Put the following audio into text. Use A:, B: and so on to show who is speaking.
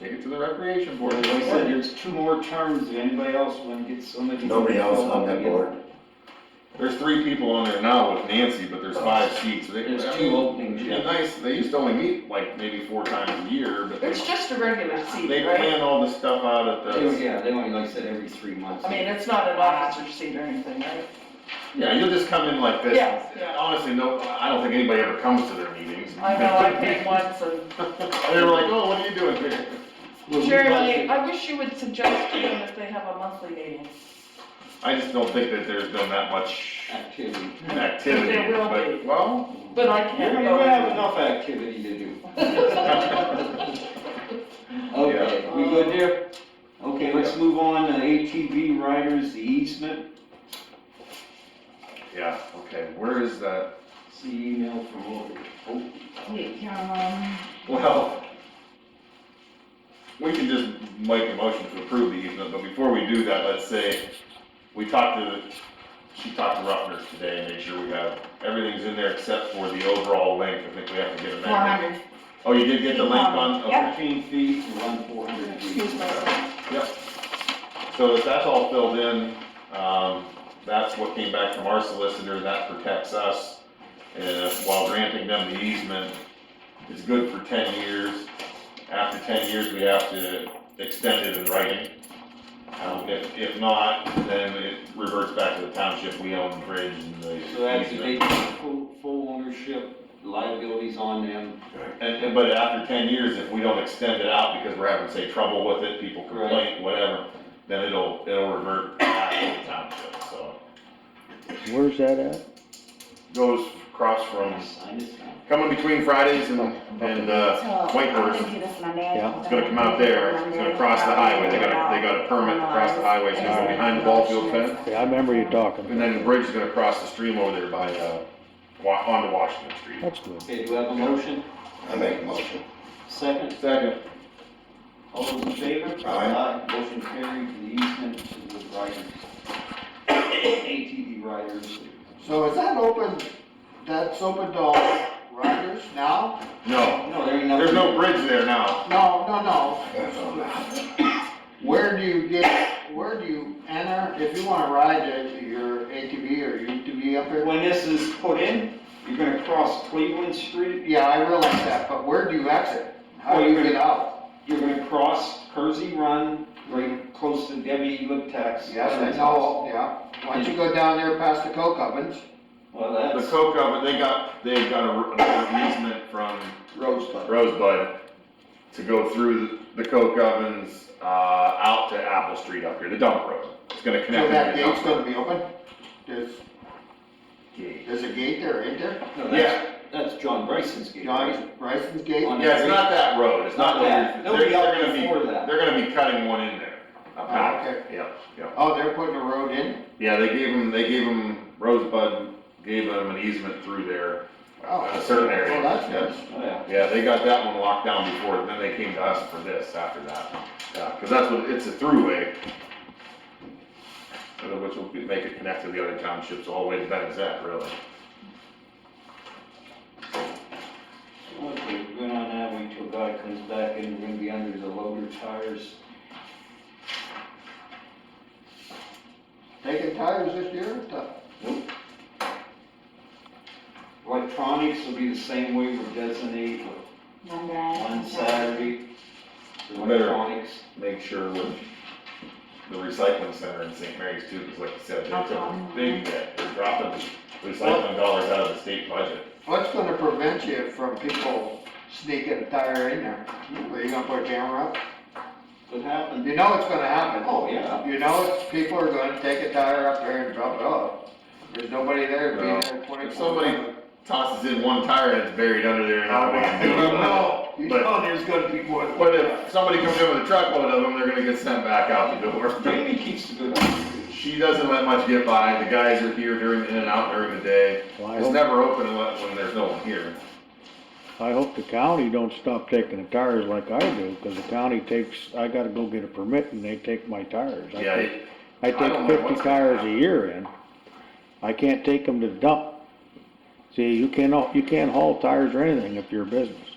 A: to the recreation board.
B: Like I said, there's two more terms, if anybody else want to get somebody.
C: Nobody else on that board?
A: There's three people on there now with Nancy, but there's five seats. They-
B: There's
A: I
B: two
A: mean,
B: openings,
A: it'd be
B: yeah.
A: nice, they used to only meet like maybe four times a year, but they,
D: It's just a regular
A: they
D: seat, right?
A: plan all the stuff out at
B: They-
A: the,
B: Yeah, they only, like I said, every three months.
D: I mean, it's not an officer seat or anything, right?
A: yeah, you'll just come in like this.
D: Yeah, yeah.
A: Honestly, no, I don't think anybody ever comes to their meetings.
D: I know, I came once and,
A: They were like, oh, what are you doing here?
B: Well, we
D: Shirley,
B: budget-
D: I wish you would suggest to them if they have a monthly meeting.
A: I just don't think that there's been that much
B: Activity.
A: activity,
D: There will
A: but,
D: be.
A: well,
D: But I
B: You
D: can't
B: have
D: go.
B: enough activity to do. Okay, we good there? Okay, let's move on to ATV riders, the easement.
A: yeah, okay, where is that?
B: See email from over. oh,
A: Well, we can just make a motion to approve the easement, but before we do that, let's say, we talked to, she talked to Ruffner's today and made sure we have, everything's in there except for the overall length, I think we have to get a
D: Four
A: measurement.
D: hundred,
A: Oh, you did get the length on, okay,
D: Yeah.
B: Fifteen feet to run four hundred feet.
D: excuse myself.
A: yep. So if that's all filled in, um, that's what came back from our solicitor, that protects us. And while granting them the easement, it's good for ten years. After ten years, we have to extend it in writing. Um, if, if not, then it reverts back to the township, we own the bridge and the
B: So that's, they
A: easement.
B: take full, full ownership, liabilities on them.
A: And, and- but after ten years, if we don't extend it out because we're having, say, trouble with it, people complain, whatever, then it'll, it'll revert back to the township, so.
E: Where's that at?
A: Goes across from,
B: Sign this down.
A: coming between Fridays and, and, uh, Whitehurst. It's gonna come out there, it's gonna cross the highway, they got, a they got a permit to cross the highway, it's gonna go behind the ball field fence.
E: Yeah, I remember you talking.
A: And then the bridge is gonna cross the stream over there by, uh, wa- onto Washington Street.
E: That's good.
B: Okay, do we have a motion?
C: I make a motion.
B: Second,
A: Second.
B: all those in favor?
C: Aye.
B: Motion carried, the easement to the riders. ATV riders.
F: So is that open, that's open to all riders now?
A: No,
B: No, there ain't nothing.
A: there's no bridge there now.
F: No, no, no.
C: That's all right.
F: Where do you get, where do you enter, if you wanna ride it, your ATV or UTV up here?
B: When this is put in, you're gonna cross Cleveland Street,
F: Yeah, I realize that, but where do you exit? How do you get out?
B: you're gonna cross Kersey Run, right close to Debbie Liptak's.
F: Yes, I know, yeah. Once you go down there past the coke ovens,
B: Well,
A: The
B: that's
A: coke oven, they got, they got a, an easement from
B: Rosebud.
A: Rosebud to go through the coke ovens, uh, out to Apple Street up here, the dump road. It's gonna
F: so
A: connect.
F: that
A: into the
F: gate's
A: dump road.
F: gonna be open? There's, there's a gate there, ain't there?
B: No, that's-
A: Yeah,
B: That's John Bryson's gate, right?
F: John Bryson's gate?
B: On
A: Yeah, it's not that road, it's not,
B: Not that.
A: where-
B: They'll
A: they're,
B: be out
A: they're gonna
B: before
A: be,
B: that.
A: they're gonna be cutting one in there. up
F: Oh,
A: back.
F: okay.
A: Yep, yep.
F: Oh, they're putting a road in?
A: Yeah, they gave him, they gave him, Rosebud gave him an easement through there,
F: Oh,
A: a certain area.
F: well, that's good.
B: Oh, yeah.
A: Yeah, they got that one locked down before, then they came to us for this after that. Yeah, cause that's what, it's a throughway. uh, Which will be- make it connect to the other townships all the way to Benzett, really.
B: Okay, we're on that, wait till God comes back and we're gonna be under the loader tires.
F: Taking tires this year, tough.
B: Electronics will be the same way we designate on Saturday. Electronics,
A: Make sure with the recycling center in St. Mary's too, cause like you said, they took a big, hit. they're dropping recycling dollars out of the state budget.
F: What's gonna prevent you from people sneaking a tire in there? Are you gonna put a camera up?
B: what happened?
F: You know it's gonna happen.
B: Oh, yeah.
F: You know, it's- people are gonna take a tire up there and drop it off. There's nobody there, be
A: No.
F: there twenty-four.
A: If somebody- Tosses in one tire and it's buried under there and nobody can do it.
F: No, you
A: But-
F: know there's gonna be more than.
A: What if somebody comes in with a truckload of them, they're gonna get sent back out the door.
B: Jamie keeps the good eye.
A: She doesn't let much get by, the guys are here during, in and out during the day.
E: Well, I
A: It's
E: hope,
A: never open unless, when there's no one here.
E: I hope the county don't stop taking the tires like I do, cause the county takes, I gotta go get a permit and they take my tires. I
A: Yeah,
E: take-
A: it-
E: I
A: I don't
E: take
A: know
E: fifty
A: what's gonna
E: tires a
A: happen.
E: year in. I can't take them to the dump. See, you cannot, you can't haul tires or anything if you're a business.